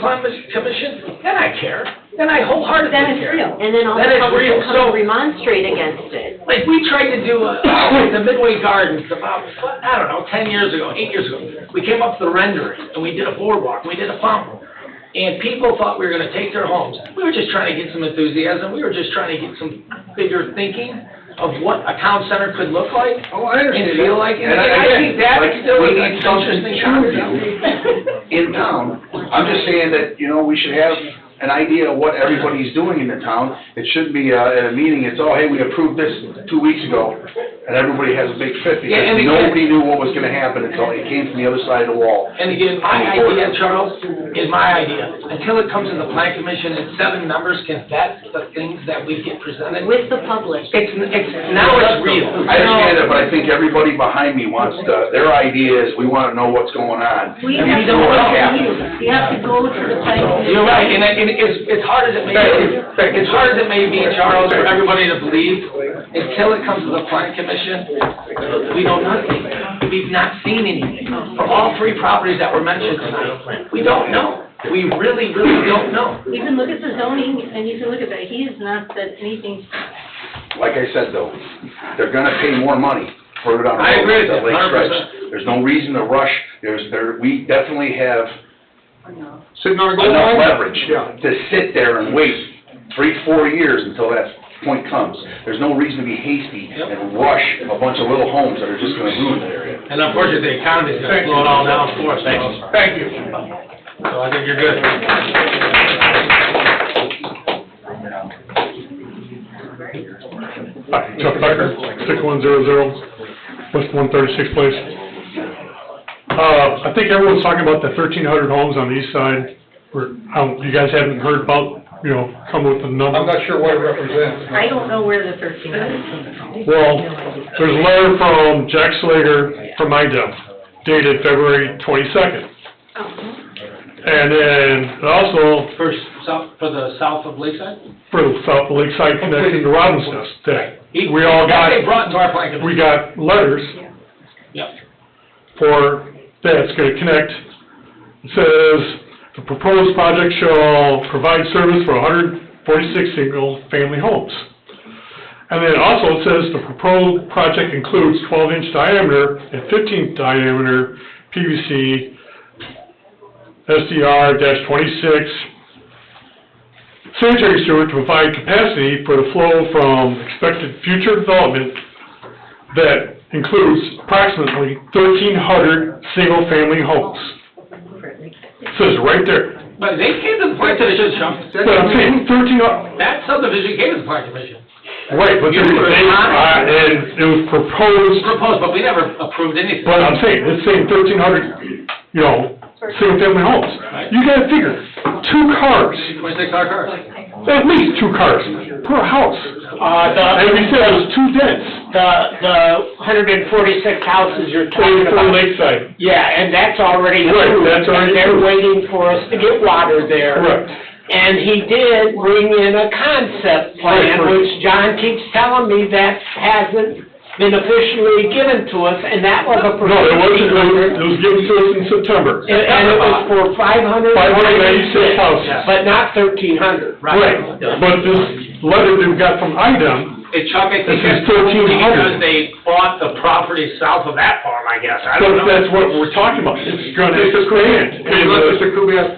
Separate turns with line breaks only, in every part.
commis- commission, then I care, then I wholeheartedly
Then it's
care.
real.
And then all
That
the
is
public
real.
will come
So-
and remonstrate against it.
Like, we tried to do, uh, the Midway Gardens about, what, I don't know, ten years ago, eight years ago. We came up with the rendering, and we did a boardwalk, we did a pump. And people thought we were gonna take their homes. We were just trying to get some enthusiasm, we were just trying to get some bigger thinking of what a town center could look like
Oh, I
and
understand.
feel like. And I
again,
think that
like,
is still
we
an
need something
interesting
to
concept.
do In town, I'm just saying that, you know, we should have an idea of what everybody's doing in the town. It shouldn't be, uh, at a meeting, it's, oh, hey, we approved this two weeks ago, and everybody has a big fit
Yeah, and again-
because nobody knew what was gonna happen until it came from the other side of the wall.
And again, my idea, Charles, is my idea. Until it comes to the plan commission and seven members can vet the things that we get presented.
With the public.
It's, it's, now it's real.
I understand it, but I think everybody behind me wants to, their idea is, we wanna know what's going on.
We have
And we
to
know
go
what's
to the
happening.
meetings. We have to go to the planning commission.
You're right, and it, and it's, it's hard as it may be, it's hard as it may be, Charles, for everybody to believe, until it comes to the plan commission, we don't know anything. We've not seen anything. For all three properties that were mentioned tonight, we don't know. We really, really don't know.
You can look at the zoning and you can look at that. He has not said anything.
like I said though, they're gonna pay more money for it on.
I agree with
that
you,
lake stretch.
100%.
There's no reason to rush, there's, there, we definitely have
Sitting on a gold
enough
mine?
leverage
Yeah.
to sit there and wait three, four years until that point comes. There's no reason to be hasty and rush a bunch of little homes that are just gonna ruin that area.
And unfortunately, the economy's gonna slow it all down for us. So
Thank you.
I think you're good.
Hi, Chuck Becker, six one zero zero, West one thirty-six place. Uh, I think everyone's talking about the thirteen hundred homes on the east side, where, um, you guys haven't heard about, you know, come with the number.
I'm not sure what it represents.
I don't know where the thirteen hundred is coming from.
Well, there's a letter from Jack Slater from IDEM dated February twenty-second. And then also
For south, for the south of Lakeside?
for the South Lakeside connecting to Robin's Nest that we
That
all got,
They brought into our plan
we
commission.
got letters
Yep.
for, that's gonna connect. It says, "The proposed project shall provide service for hundred forty-six single-family homes." And then also it says, "The proposed project includes twelve-inch diameter and fifteen diameter PVC SDR twenty-six sanitary sewer to provide capacity for the flow from expected future development that includes approximately thirteen hundred single-family homes."
Oh,
Says right there.
But they came to the plan commission, Chuck.
But I'm saying thirteen, hu-
That subdivision came to the plan commission.
right, but
You
they,
were
uh,
not-
and it was proposed,
Proposed, but we never approved anything.
but I'm saying, it's saying thirteen hundred, you know, single-family homes. You gotta figure, two cars,
Twenty-six hour cars.
at least two cars per house.
Uh,
And we
the,
said it was too dense,
the, the hundred and forty-six houses you're talking
for
about.
Lakeside,
Yeah, and that's already
Right,
approved,
that's already
and they're
approved.
waiting for us to get water there.
correct.
And he did bring in a concept
Right,
plan,
right.
which John keeps telling me that hasn't been officially given to us, and that was a.
No, it wasn't, it was- it was given to us in September,
And and it was for five hundred.
five hundred ninety-six houses.
But not thirteen hundred.
Right, but this letter that we got from IDEM,
And Chuck, I
This
think
is
that's because
1300.
they bought the property south of that farm, I guess. I don't
that's,
know.
that's what we're talking about, it's gonna expand. uh,
Hey, look, Mr. Kubiac,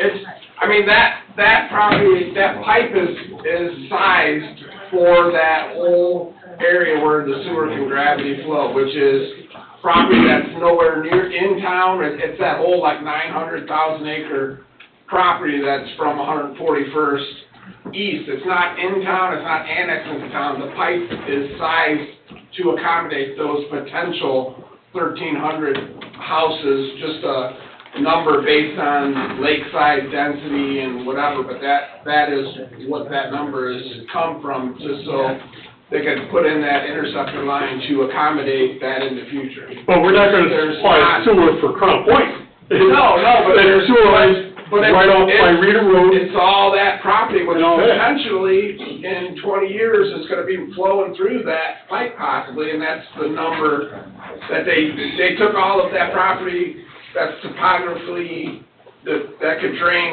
It's, I mean, that, that property, that pipe is, is sized for that whole area where the sewer can gravity flow, which is property that's nowhere near in town, it's, it's that whole like nine hundred thousand acre property that's from one hundred forty-first east, it's not in town, it's not annexed into town, the pipe is sized to accommodate those potential thirteen hundred houses, just a number based on lakeside density and whatever, but that, that is what that number has come from, just so they can put in that interceptor line to accommodate that in the future.
But we're not gonna
There's
supply
not-
sewer for Crown Point.
No, no, but
That
there's-
sewer lines
but it's-
right off by
it's-
Reeder Road,
It's all that property, which
And all that.
potentially in twenty years is gonna be flowing through that pipe possibly, and that's the number that they, they took all of that property that's topographically, that, that could drain